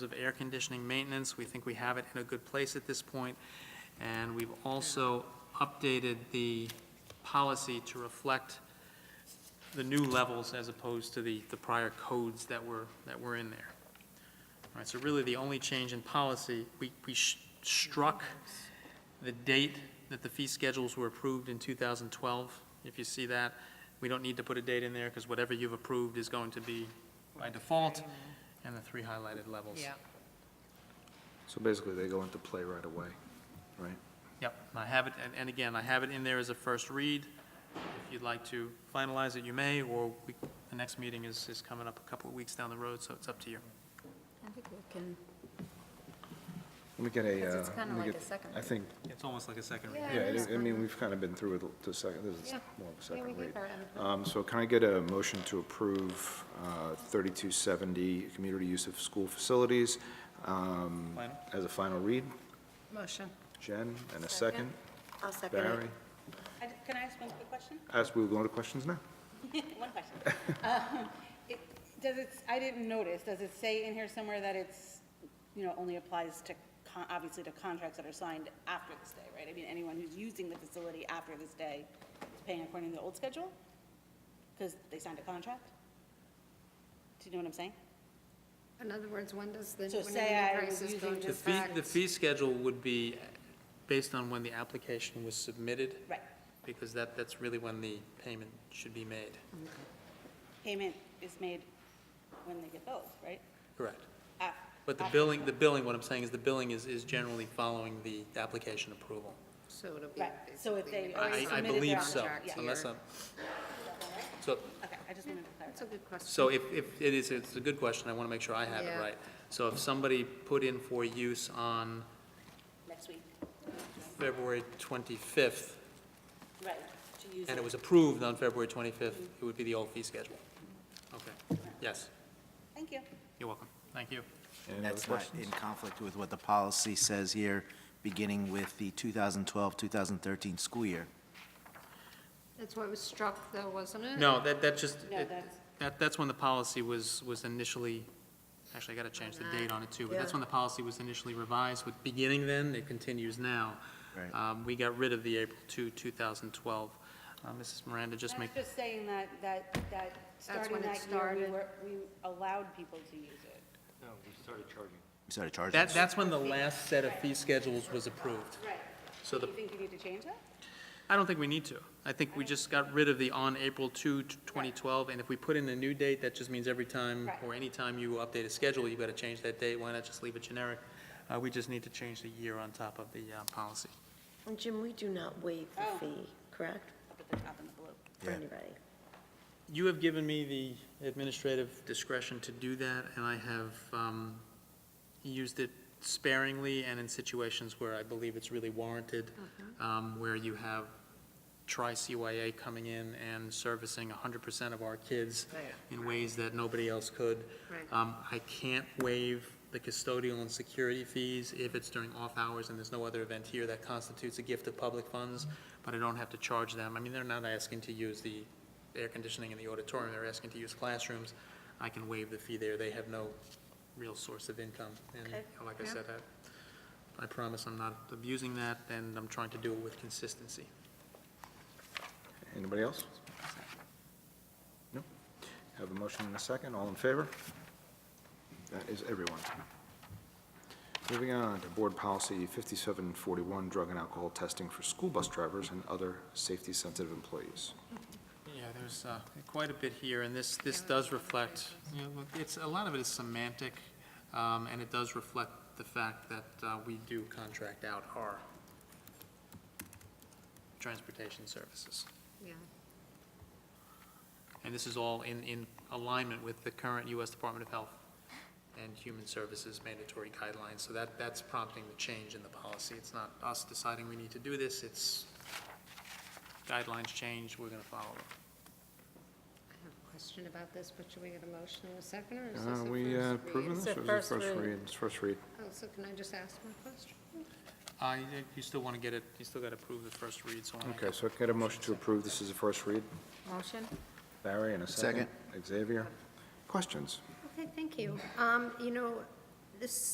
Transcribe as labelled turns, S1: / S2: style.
S1: of air conditioning maintenance, we think we have it in a good place at this point. And we've also updated the policy to reflect the new levels as opposed to the, the prior codes that were, that were in there. All right, so really the only change in policy, we, we sh- struck the date that the fee schedules were approved in 2012. If you see that, we don't need to put a date in there because whatever you've approved is going to be by default and the three highlighted levels.
S2: Yeah,
S3: So basically, they go into play right away, right?
S1: Yep, and I have it, and, and again, I have it in there as a first read. If you'd like to finalize it, you may, or we, the next meeting is, is coming up a couple of weeks down the road, so it's up to you.
S4: I think we can,
S3: Let me get a,
S4: Because
S3: uh,
S4: it's
S3: let
S4: kinda
S3: me
S4: like
S3: get-
S4: a second
S3: I
S4: read.
S3: think,
S1: It's almost like a second
S4: Yeah,
S1: read.
S3: yeah,
S4: it is
S3: I I
S4: kinda-
S3: mean, we've kind of been through it the second, this is
S4: Yeah.
S3: more of a
S4: yeah, we
S3: second
S4: gave
S3: read.
S4: our input.
S3: Um, So can I get a motion to approve uh, 3270, community use of school facilities, um,
S1: Final?
S3: as a final read?
S2: motion.
S3: Jen, and a second?
S4: Second. I'll second it.
S3: Barry?
S5: I d- Can I ask one quick question?
S3: As we go into questions now?
S5: One question. Um, it- Does it, I didn't notice, does it say in here somewhere that it's, you know, only applies to, con- obviously to contracts that are signed after this day, right? I mean, anyone who's using the facility after this day is paying according to the old schedule? Because they signed a contract? Do you know what I'm saying?
S4: In other words, when does the,
S5: So
S4: when do the
S5: say I was
S4: prices go
S5: using
S4: into
S1: The fee,
S4: effect?
S1: the fee schedule would be based on when the application was submitted,
S5: Right.
S1: because that, that's really when the payment should be made.
S5: Payment is made when they get billed, right?
S1: Correct.
S4: Uh,
S5: Af-
S1: But the
S5: after-
S1: billing, the billing, what I'm saying is the billing is, is generally following the application approval.
S4: So it'll be
S5: Right, so if
S4: basically
S5: they
S4: negotiated.
S1: I,
S5: already
S1: I
S5: submitted their
S1: believe so,
S4: contract
S1: unless
S4: here.
S1: I'm, so,
S5: Okay, I just wanted to clarify.
S4: That's a good question.
S1: So if, if, it is, it's a good question, I want to make sure I have it
S4: Yeah.
S1: right. So if somebody put in for use on
S5: Next week,
S1: February 25th,
S5: right, to use
S1: and it
S5: it.
S1: was approved on February 25th, it would be the old fee schedule. Okay, yes,
S5: Thank you.
S1: you're welcome, thank you.
S3: Any
S6: And
S3: other
S6: that's not
S3: questions?
S6: in conflict with what the policy says here, beginning with the 2012-2013 school year.
S4: That's what was struck though, wasn't it?
S1: No, that, that just,
S5: No,
S1: it-
S5: that's-
S1: that, that's when the policy was, was initially, actually, I got to change the date on it too, but that's
S4: Yeah.
S1: when the policy was initially revised with beginning then, it continues now.
S6: Right.
S1: Um, We got rid of the April 2, 2012. Uh, Mrs. Miranda, just make,
S5: That's just saying that, that, that, starting
S4: when it
S5: that year, we
S4: started.
S5: were, we allowed people to use it.
S6: We started charging
S1: that,
S6: us.
S1: that's when the last set of fee schedules was approved.
S5: Right.
S1: So
S5: Do
S1: the,
S5: you think you need to change that?
S1: I don't think we need to. I think we just got rid of the on April 2, 2012, and if we put in a new date, that just means every time,
S5: Right.
S1: or any time you update a schedule, you've got to change that date. Why not just leave it generic? Uh, We just need to change the year on top of the uh, policy.
S7: And Jim, we do not waive
S5: Oh.
S7: the fee, correct,
S5: Up at the top in the blue.
S7: for
S6: Yeah.
S7: anybody?
S1: You have given me the administrative discretion to do that, and I have um, used it sparingly and in situations where I believe it's really warranted,
S4: Uh-huh. Oh,
S1: um, where you have tri-CYA coming in and servicing 100% of our kids
S4: Right.
S1: in ways that nobody else could.
S4: Right.
S1: Um, I can't waive the custodial and security fees if it's during off-hours and there's no other event here that constitutes a gift of public funds, but I don't have to charge them. I mean, they're not asking to use the air conditioning in the auditorium, they're asking to use classrooms. I can waive the fee there, they have no real source of income. And
S7: Okay.
S1: like I
S4: Yeah.
S1: said, I, I promise I'm not abusing that, and I'm trying to do it with consistency.
S3: Anybody else? No? Have a motion and a second, all in favor? That is everyone. Moving on to Board Policy 5741, Drug and Alcohol Testing for School Bus Drivers and Other Safety-Sensitive Employees.
S1: Yeah, there's uh, quite a bit here, and this, this does reflect, you know, look, it's, a lot of it is semantic, um, and it does reflect the fact that uh, we do contract out our transportation services.
S4: Yeah.
S1: And this is all in, in alignment with the current U.S. Department of Health and Human Services mandatory guidelines. So that, that's prompting the change in the policy. It's not us deciding we need to do this, it's guidelines change, we're going to follow them.
S4: I have a question about this, but should we get a motion in a second or is
S3: Uh,
S4: this a first
S3: We uh,
S4: read?
S3: approving
S7: It's
S3: this,
S7: a
S3: or is it
S7: first
S3: first
S7: read.
S3: read? It's first read.
S4: Oh, so can I just ask my question?
S1: Uh, you- you still want to get it, you still got to approve the first read, so. I wanna-
S3: Okay, so can I get a motion to approve, this is a first read.
S4: Motion?
S3: Barry, and a second. Xavier. Questions?
S4: Okay, thank you. Um, you know, this